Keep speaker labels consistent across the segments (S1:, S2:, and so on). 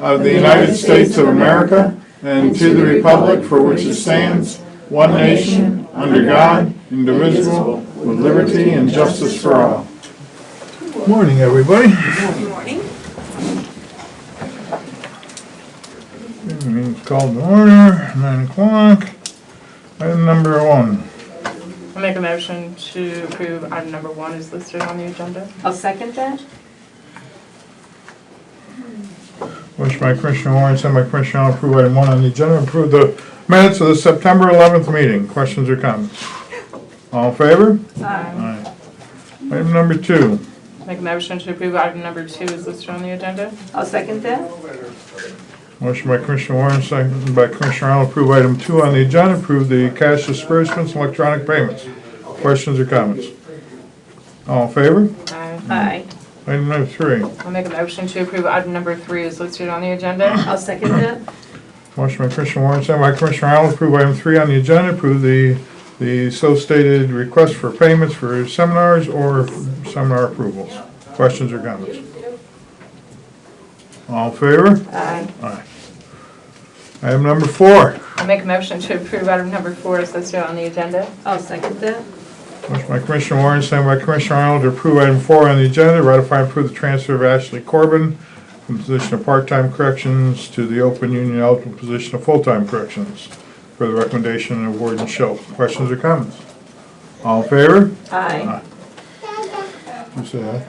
S1: of the United States of America and to the republic for which it stands, one nation, under God, indivisible, with liberty and justice for all.
S2: Morning, everybody.
S3: Good morning.
S2: Meeting's called to order, nine o'clock. Item number one.
S4: I make a motion to approve item number one is listed on the agenda.
S3: I'll second that.
S2: Motion by Commissioner Warren, sent by Commissioner Arnold, approve item one on the agenda, approve the minutes of the September 11th meeting. Questions or comments? All in favor?
S3: Aye.
S2: Aye. Item number two.
S4: Make a motion to approve item number two is listed on the agenda.
S3: I'll second that.
S2: Motion by Commissioner Warren, second by Commissioner Arnold, approve item two on the agenda, approve the cash disbursements, and electronic payments. Questions or comments? All in favor?
S4: Aye.
S3: Aye.
S2: Item number three.
S4: I make a motion to approve item number three is listed on the agenda.
S3: I'll second that.
S2: Motion by Commissioner Warren, second by Commissioner Arnold, approve item three on the agenda, approve the, the so stated request for payments for seminars or seminar approvals. Questions or comments? All in favor?
S3: Aye.
S2: Aye. Item number four,
S4: I make a motion to approve item number four is listed on the agenda.
S3: I'll second that.
S2: motion by Commissioner Warren, second by Commissioner Arnold, to approve item four on the agenda, ratify and approve the transfer of Ashley Corbin from the position of part-time corrections to the open union eligible position of full-time corrections for the recommendation of Warden Schultz. Questions or comments? All in favor?
S3: Aye.
S2: You say aye.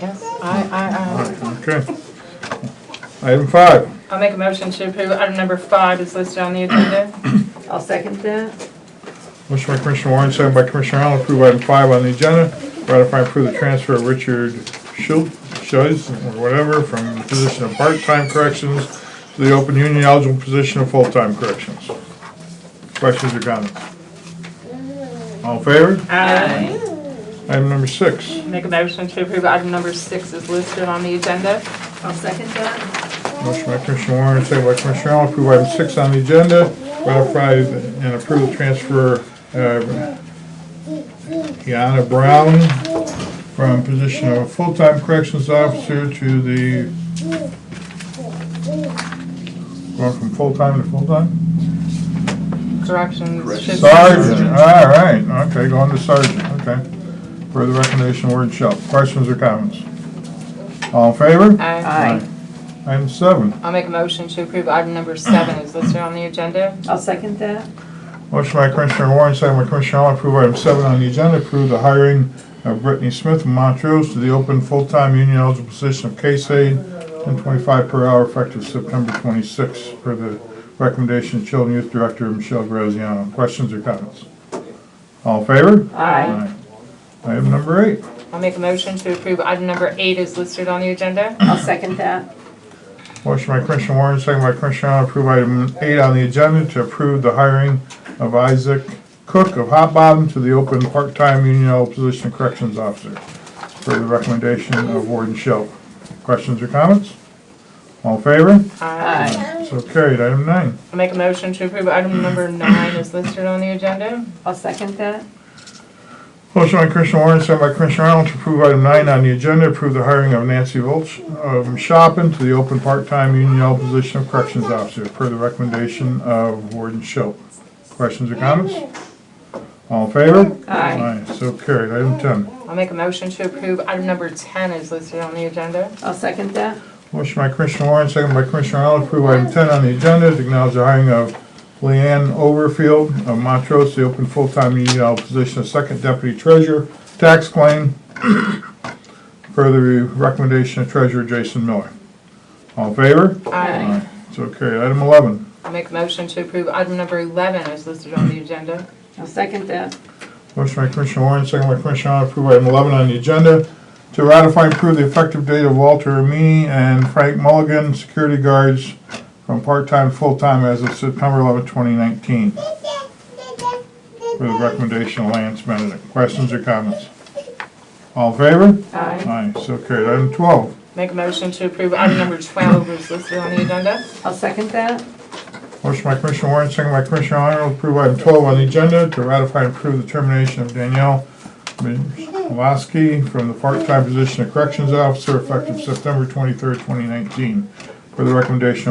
S4: Yes. Aye, aye,
S2: Okay. Item five,
S4: aye. I make a motion to approve item number five is listed on the agenda.
S3: I'll second that.
S2: motion by Commissioner Warren, second by Commissioner Arnold, approve item five on the agenda, ratify and approve the transfer of Richard Schultz, Schultz, or whatever, from the position of part-time corrections to the open union eligible position of full-time corrections. Questions or comments? All in favor?
S4: Aye.
S2: Item number six,
S4: Make a motion to approve item number six is listed on the agenda.
S3: I'll second that.
S2: Motion by Commissioner Warren, second by Commissioner Arnold, approve item six on the agenda, ratify and approve the transfer of Kiana Brown from position of full-time corrections officer to the, going from full-time to full-time?
S4: Corrections. should be-
S2: Sergeant, all right, okay, going to sergeant, okay. Per the recommendation, word shall. Questions or comments? All in favor?
S4: Aye.
S3: Aye.
S2: Item seven.
S4: I make a motion to approve item number seven is listed on the agenda.
S3: I'll second that.
S2: Motion by Commissioner Warren, second by Commissioner Arnold, approve item seven on the agenda, approve the hiring of Brittany Smith from Montrose to the open full-time union eligible position of case aide, ten twenty-five per hour effective September twenty-sixth, per the recommendation of Children Youth Director Michelle Graziano. Questions or comments? All in favor?
S3: Aye.
S2: Aye. Item number eight.
S4: I'll make a motion to approve item number eight is listed on the agenda.
S3: I'll second that.
S2: Motion by Commissioner Warren, second by Commissioner Arnold, approve item eight on the agenda to approve the hiring of Isaac Cook of Hot Bottom to the open part-time union eligible position of corrections officer for the recommendation of Warden Shelp. Questions or comments? All in favor?
S4: Aye.
S3: Aye.
S2: So carried. Item nine.
S4: I'll make a motion to approve item number nine is listed on the agenda.
S3: I'll second that.
S2: Motion by Commissioner Warren, second by Commissioner Arnold, to approve item nine on the agenda, approve the hiring of Nancy Volch of Shopin to the open part-time union eligible position of corrections officer per the recommendation of Warden Shelp. Questions or comments? All in favor?
S3: Aye.
S2: Aye, so carried. Item ten.
S4: I'll make a motion to approve item number 10 is listed on the agenda.
S3: I'll second that.
S2: Motion by Commissioner Warren, second by Commissioner Arnold, approve item ten on the agenda, to acknowledge the hiring of Leanne Overfield of Montrose, the open full-time union eligible position of second deputy treasurer, tax claim, per the recommendation of treasurer Jason Miller. All in favor?
S4: Aye.
S2: So carried. Item eleven.
S4: I'll make a motion to approve item number 11 is listed on the agenda.
S3: I'll second that.
S2: Motion by Commissioner Warren, second by Commissioner Arnold, approve item 11 on the agenda to ratify and approve the effective date of Walter Amini and Frank Mulligan, security guards, from part-time to full-time as of September 11, 2019, for the recommendation of Lance Benedict. Questions or comments? All in favor?
S3: Aye.
S2: Aye, so carried. Item 12.
S4: Make a motion to approve item number 12 is listed on the agenda.
S3: I'll second that.
S2: Motion by Commissioner Warren, second by Commissioner Arnold, approve item 12 on the agenda to ratify and approve the termination of Danielle Milovsky from the part-time position of Corrections Officer effective September 23rd, 2019, for the recommendation of